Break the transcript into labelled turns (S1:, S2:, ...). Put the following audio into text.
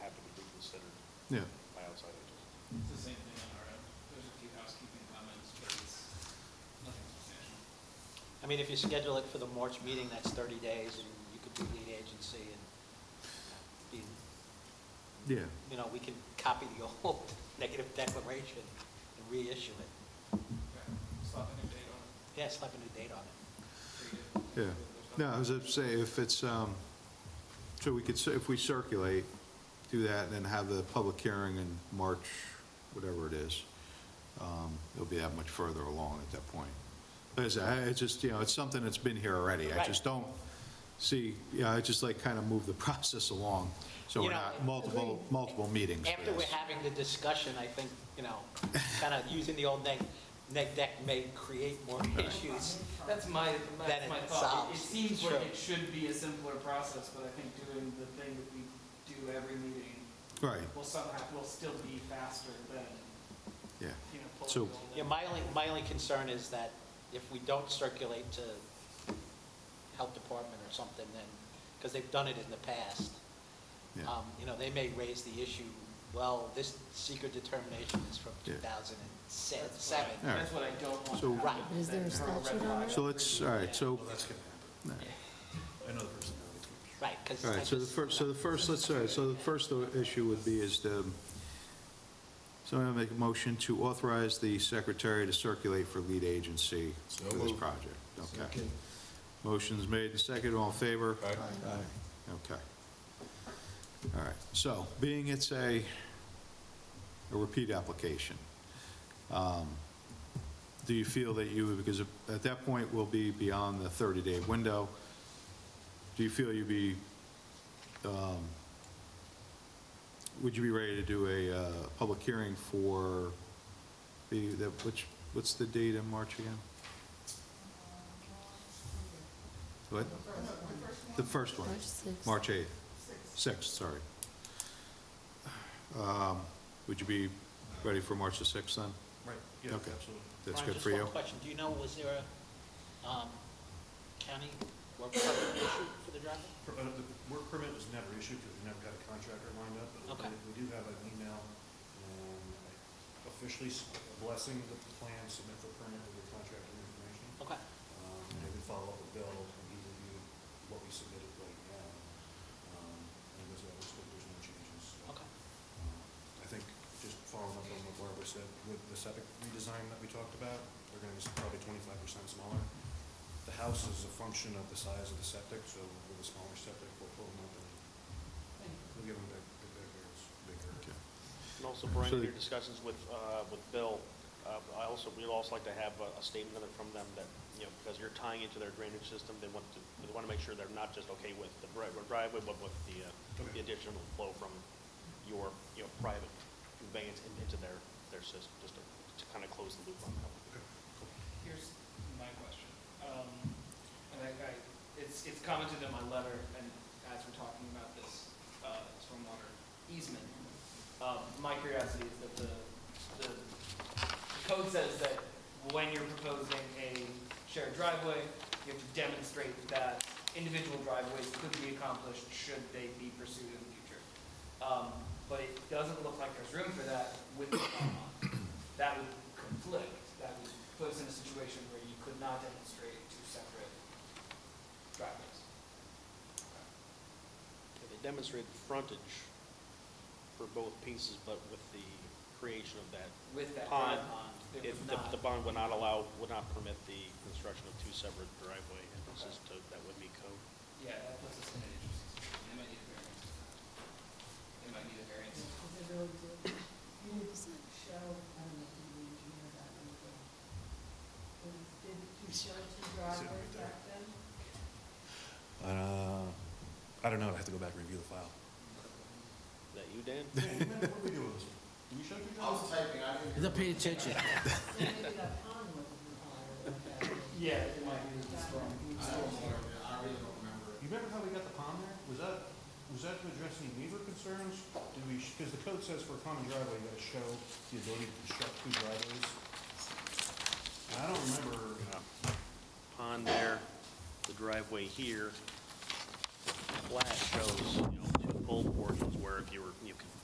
S1: Yeah.
S2: by outside agents.
S3: It's the same thing on our end. There's a few housekeeping comments, but it's nothing substantial.
S4: I mean, if you schedule it for the March meeting, that's 30 days, and you could do lead agency and, be-
S1: Yeah,
S4: you know, we can copy the old negative declaration and reissue it.
S3: Okay, slap a new date on it,
S4: Yeah, slap a new date on it.
S3: pretty good.
S1: yeah. No, I was gonna say, if it's, um, so we could, cir- if we circulate, do that, and then have the public hearing in March, whatever it is, um, it'll be that much further along at that point. Like I said, I- it's just, you know, it's something that's been here already. I
S4: Right.
S1: just don't see, yeah, I just like kind of move the process along, so
S4: You
S1: we're
S4: know,
S1: not multiple,
S4: agreed.
S1: multiple meetings. for
S4: After we're
S1: this.
S4: having the discussion, I think, you know, kind of using the old neg, neg deck may create more issues.
S3: That's my,
S4: Then
S3: that's my
S4: it
S3: thought. It- It
S4: solves.
S3: seems like
S4: Sure.
S3: it should be a simpler process, but I think doing the thing that we do every meeting
S1: Right,
S3: will somehow, will still be faster than,
S1: yeah,
S3: you know,
S1: So-
S3: pulling the whole
S4: Yeah, my only, my only concern is that if we don't circulate to Health Department or something, then, because they've done it in the past,
S1: yeah.
S4: um, you know, they may raise the issue, well, this secret determination is from
S1: Yeah.
S4: 2007.
S3: That's what I- That's what I don't want.
S1: So-
S3: to happen,
S4: Right.
S5: Is there a
S3: that for red
S5: statute on
S3: line.
S5: it?
S1: So let's, all right, so,
S2: Well, that's gonna happen.
S1: all right.
S2: I know the personality.
S4: Right, because.
S1: All right, so the first, so the first, let's, all right, so the first issue would be is um, the, somebody will make a motion to authorize the secretary to circulate for lead agency for
S2: So
S1: this
S2: moved.
S1: project. Okay. Motion's made and seconded, all in favor?
S2: Aye.
S1: Okay. All right, so being it's a, a repeat application, um, do you feel that you, because at that point we'll be beyond the 30-day window, do you feel you'd be, um, would you be ready to do a uh, public hearing for the, the- which, what's the date in March again? What? The first one?
S5: March sixth.
S1: March 8th? 6th, sorry. Um, Would you be ready for March the 6th then?
S2: Right, yeah,
S1: Okay.
S2: absolutely.
S1: That's good
S4: Brian,
S1: for you?
S4: Just one question, do you know, was there a um, county work permit issue for the driveway?
S2: Per- uh, The work permit was never issued because we never got a contractor lined up, but
S4: Okay.
S2: we- we do have an email um, officially s- blessing the plan, submit the permit with the contractor information.
S4: Okay,
S2: Um, And we follow up with Bill, and he reviewed what we submitted right now. Um, And there's, uh, looks like there's no changes. so,
S4: okay.
S2: um, I think just following up on what Barbara said, with the septic redesign that we talked about, they're gonna be probably twenty-five percent smaller. The house is a function of the size of the septic, so with a smaller septic, we'll pull them up and we'll give them big, big, big areas, bigger.
S1: Okay.
S6: And also, Brian,
S1: So
S6: in
S1: the-
S6: your discussions with, uh, with Bill, uh, I also, we'd also like to have a a statement from them that, you know, because you're tying into their drainage system, they want to, they want to make sure they're not just okay with the dri- with driveway, but with the, uh,
S2: Okay.
S6: the additional flow from your, you know, private conveyance in- into their, their system, just to, to kind of close the loop on that. one.
S2: Okay, cool.
S3: Here's my question. Um, and I, I, it's, it's commented in my letter, and as we're talking about this, uh, stormwater easement, um, my curiosity is that the, the code says that when you're proposing a shared driveway, you have to demonstrate that individual driveways could be accomplished should they be pursued in the future. Um, but it doesn't look like there's room for that with the bylaw that would conflict, that would put us in a situation where you could not demonstrate two separate driveways.
S6: Okay, They demonstrated frontage for both pieces, but with the creation of that,
S3: With that
S6: Pond,
S3: drive pond, it
S6: if
S3: would
S6: the,
S3: not,
S6: the bond would not allow, would not permit the construction of two separate driveway entrances to, that would be code.
S3: yeah, that puts us in an interesting situation, they might need a variance. They might need a variance.
S7: They really do. You need to show, I don't know if you engineer that on the bill. Did you show two driveways
S2: right there.
S7: back then?
S2: Uh, I don't know, I have to go back and review the file.
S6: That you, Dan?
S2: What do we do with this? Do we show you guys?
S4: pay attention.
S7: So maybe that pond wasn't required back then.
S3: Yeah, it might be the storm.
S2: You remember how we got the pond there? Was that, was that to address any neighbor concerns? Did we, because the code says for a common driveway, you gotta show the ability to construct two driveways. And I don't remember,
S6: Uh, Pond there, the driveway here, the flat shows, you know, two full portions where if you were, you